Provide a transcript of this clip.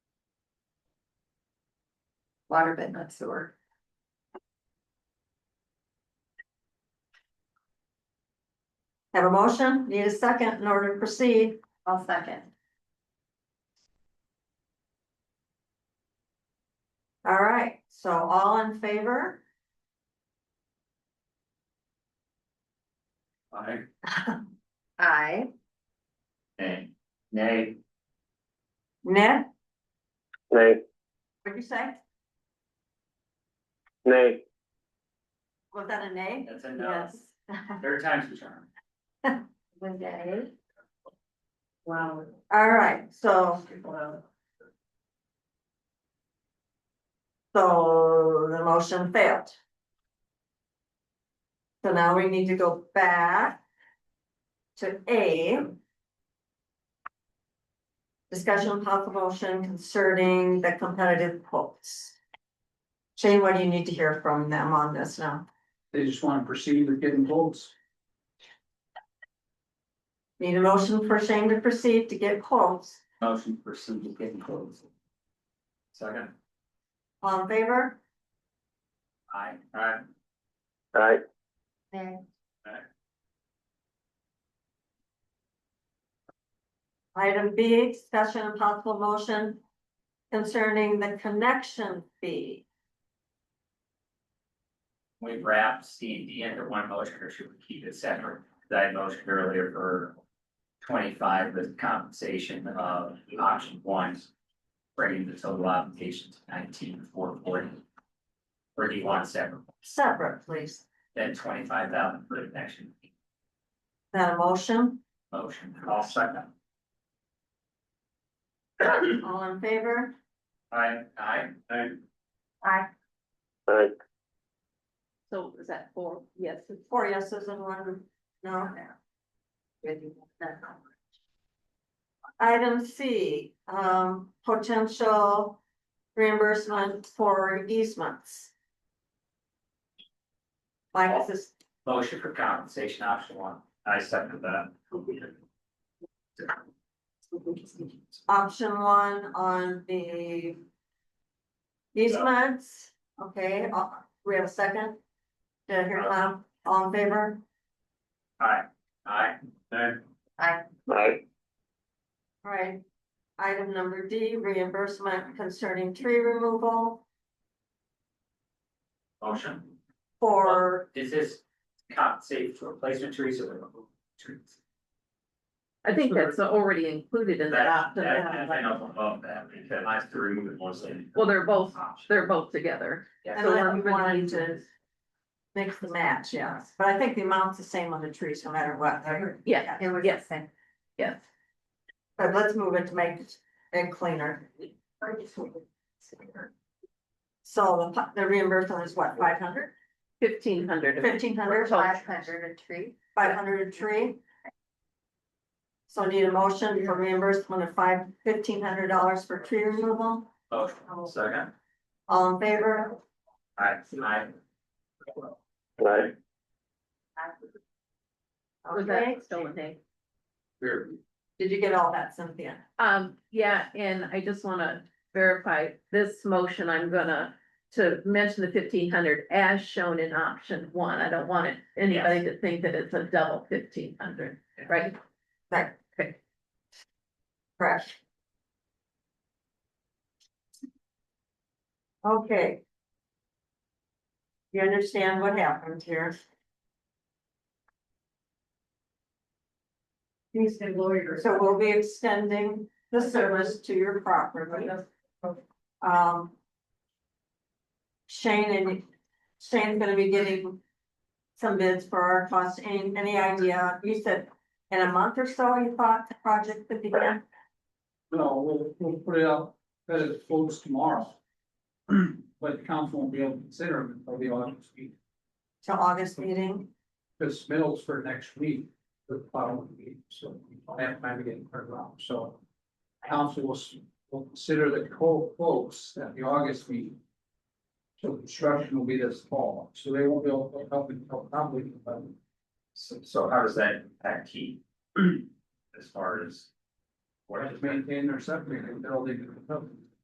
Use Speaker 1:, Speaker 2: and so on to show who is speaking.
Speaker 1: water but not sewer.
Speaker 2: Have a motion, need a second in order to proceed.
Speaker 1: I'll second.
Speaker 2: All right, so all in favor?
Speaker 3: Aye.
Speaker 1: I,
Speaker 3: Nay. Nay.
Speaker 2: Ned,
Speaker 4: Nay,
Speaker 2: what'd you say?
Speaker 4: nay,
Speaker 2: Was that a nay?
Speaker 3: That's a no. Third time's the charm.
Speaker 1: Renee. Wow.
Speaker 2: All right, so, so the motion failed. So now we need to go back to A. Discussion of possible motion concerning the competitive quotes. Shane, what do you need to hear from them on this now?
Speaker 3: They just wanna proceed with getting votes.
Speaker 2: Need a motion for Shane to proceed to get quotes,
Speaker 3: Motion to proceed with getting votes. Second.
Speaker 2: all in favor?
Speaker 3: Aye. Aye.
Speaker 4: aye,
Speaker 2: Item B, discussion and possible motion concerning the connection fee.
Speaker 3: We wrap C and D under one motion, or should we keep it separate? 'Cause I motioned earlier for twenty-five with compensation of option one, bringing the total obligation to nineteen four forty. Or do you want separate,
Speaker 2: Separate, please.
Speaker 3: then twenty-five thousand for the connection
Speaker 2: That a motion?
Speaker 3: motion? I'll second.
Speaker 2: All in favor?
Speaker 3: Aye. Aye. Aye.
Speaker 1: I,
Speaker 4: aye,
Speaker 5: So is that four yeses?
Speaker 2: Four yeses and one no. Item C, um, potential reimbursement for easements. Mike, is this,
Speaker 3: Motion for compensation option one. I second that.
Speaker 2: option one on the easements, okay, uh, we have a second? Did I hear it loud? All in favor?
Speaker 3: Aye. Aye. Aye.
Speaker 4: aye,
Speaker 2: All right. Item number D, reimbursement concerning tree removal
Speaker 3: Motion.
Speaker 2: for,
Speaker 3: Is this compensate for replacement trees or removal trees?
Speaker 5: I think that's already included in that option.
Speaker 3: That, that, I know above that, because I have to remove it mostly.
Speaker 5: Well, they're both,
Speaker 3: Option.
Speaker 5: they're both together.
Speaker 3: Yeah,
Speaker 2: And
Speaker 5: So
Speaker 2: then
Speaker 5: we're
Speaker 2: we
Speaker 5: gonna
Speaker 2: wanted
Speaker 5: need
Speaker 2: to- mix the match, yes, but I think the amount's the same on the trees, no matter what.
Speaker 5: Yeah,
Speaker 1: it was the
Speaker 5: Yes.
Speaker 1: same.
Speaker 5: yes.
Speaker 2: But let's move it to make it cleaner. So the, pu- the reimbursement is what, five hundred?
Speaker 5: Fifteen hundred.
Speaker 2: Fifteen
Speaker 1: Under
Speaker 2: hundred?
Speaker 1: five hundred a tree.
Speaker 2: Five hundred a tree? So need a motion for reimbursement of five, fifteen hundred dollars for tree removal,
Speaker 3: motion, second.
Speaker 2: all in favor?
Speaker 3: Aye. Aye.
Speaker 4: aye,
Speaker 5: Was
Speaker 2: Okay.
Speaker 5: that still a name?
Speaker 3: Here.
Speaker 2: Did you get all that, Cynthia?
Speaker 5: Um, yeah, and I just wanna verify this motion, I'm gonna to mention the fifteen hundred as shown in option one. I don't want it, anybody to think that it's a double fifteen hundred, right?
Speaker 2: Right.
Speaker 5: Okay,
Speaker 2: Correct. Okay. You understand what happened here?
Speaker 1: He's the lawyer.
Speaker 2: So we'll be extending the service to your property. Um. Shane and Shane's gonna be getting some bids for our costs. Any, any idea? You said in a month or so, you thought the project would begin?
Speaker 6: No, we'll, we'll put it out, that it floats tomorrow. But the council won't be able to consider it until the August week,
Speaker 2: To Augest meeting?
Speaker 6: because middle's for next week, the following week, so we don't have time to get it turned around, so. Council will, s- will consider the co quotes at the August meeting. So construction will be this fall, so they won't be able to hook up until probably, but
Speaker 3: So, so how does that impact key? As far as. What
Speaker 6: maintain their septic until they can hook up.